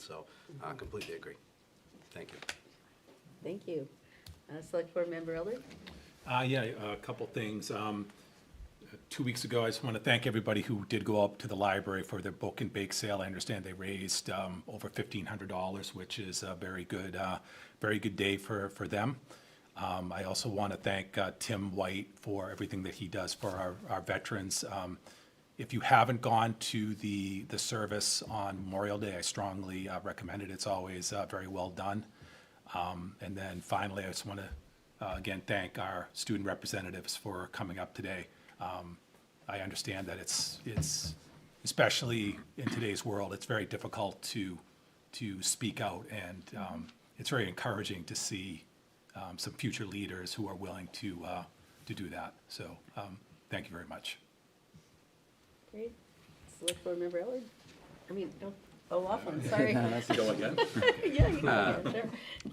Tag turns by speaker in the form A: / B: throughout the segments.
A: So I completely agree. Thank you.
B: Thank you. Uh, Select Board Member Elder?
C: Uh, yeah, a couple things. Um, two weeks ago, I just want to thank everybody who did go up to the library for their book and bake sale. I understand they raised, um, over fifteen hundred dollars, which is a very good, uh, very good day for, for them. Um, I also want to thank, uh, Tim White for everything that he does for our, our veterans. Um, if you haven't gone to the, the service on Memorial Day, I strongly uh, recommend it. It's always, uh, very well done. Um, And then finally, I just want to, again, thank our student representatives for coming up today. Um, I understand that it's, it's, especially in today's world, it's very difficult to, to speak out. And um, it's very encouraging to see um, some future leaders who are willing to, uh, to do that. So um, thank you very much.
B: Great. Select Board Member Elder? I mean, oh, O'Laughlin, sorry.
C: Go again? Uh,
B: Yeah, you can go, sure.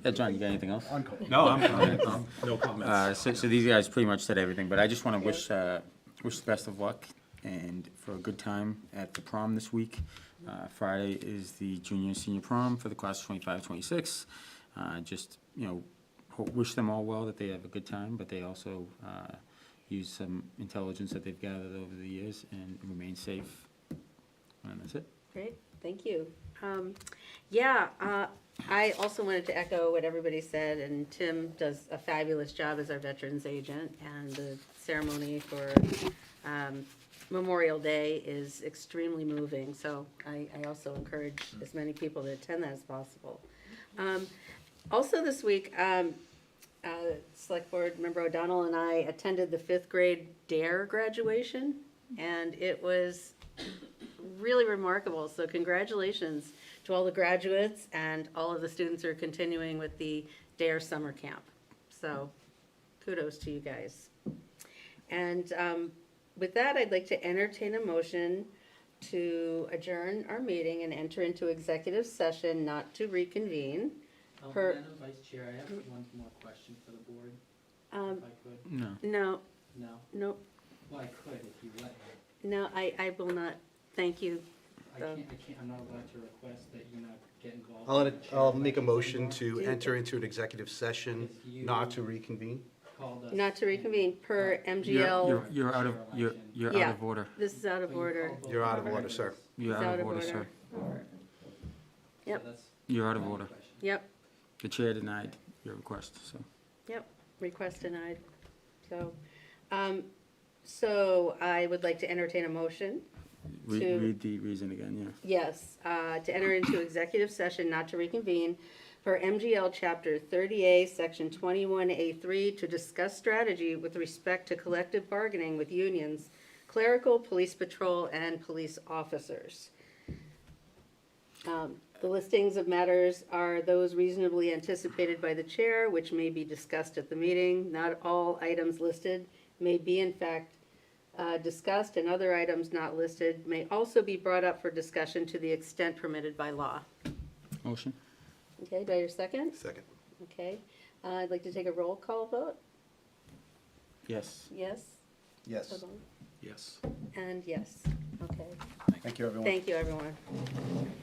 D: Yeah, John, you got anything else?
C: No, I'm, no
D: Uh,
C: comments.
D: so, so these guys pretty much said everything, but I just want to wish, uh, wish the best of luck and for a good time at the prom this week. Uh, Friday is the junior and senior prom for the class of twenty-five, twenty-six. Uh, just, you know, ho- wish them all well, that they have a good time, but they also, uh, use some intelligence that they've gathered over the years and remain safe. And that's it.
B: Great, thank you. Um, Yeah, uh, I also wanted to echo what everybody said, and Tim does a fabulous job as our Veterans Agent, and the ceremony for um, Memorial Day is extremely moving, so I I also encourage as many people to attend that as possible. Um, Also this week, um, uh, Select Board Member O'Donnell and I attended the fifth grade DARE E graduation, and it was really remarkable. So congratulations to all the graduates and all of the students who are continuing with the DARE summer camp. So kudos to you guys. And um, with that, I'd like to entertain a motion to adjourn our meeting and enter into executive session not to reconvene. Per-
E: Madam Vice Chair, I have one more question for the board,
B: Um,
E: if I could.
D: No.
B: No,
E: No?
B: no,
E: Well, I could if you let me.
B: no, I, I will not. Thank you.
E: I
B: Um,
E: can't, I can't, I'm not allowed to request that you not get involved.
A: I'll,
E: in
A: let
E: the
A: it-
E: chair
A: I'll make a
E: elections
A: motion
E: anymore.
A: to enter into an executive session, not to reconvene.
E: Called us
B: Not to
E: and-
B: reconvene
E: Uh,
B: per
D: You're-
B: MGL.
D: You're, you're out of, you're, you're out of
B: Yeah.
D: order.
B: This is out
E: But
B: of
E: you
B: order.
E: called both
A: You're out of
E: members.
A: order, sir.
D: You're
B: It's
D: out of order, sir.
E: So
B: Yep.
E: that's
D: You're out of
E: my
D: order.
E: question.
B: Yep.
D: The chair denied your request, so.
B: Yep, request denied. So, um, so I would like to entertain a motion.
D: Re-
B: To-
D: Read the reason again, yeah.
B: Yes, uh, to enter into executive session not to reconvene for MGL Chapter 30A, Section 21A3, to discuss strategy with respect to collective bargaining with unions, clerical, police patrol, and police officers. Um, The listings of matters are those reasonably anticipated by the chair, which may be discussed at the meeting. Not all items listed may be in fact uh, discussed, and other items not listed may also be brought up for discussion to the extent permitted by law.
D: Motion?
B: Okay, do I hear a second?
A: Second.
B: Okay. Uh, I'd like to take a roll call vote.
D: Yes.
B: Yes?
A: Yes.
C: Yes.
B: And yes. Okay.
A: Thank you, everyone.
B: Thank you, everyone.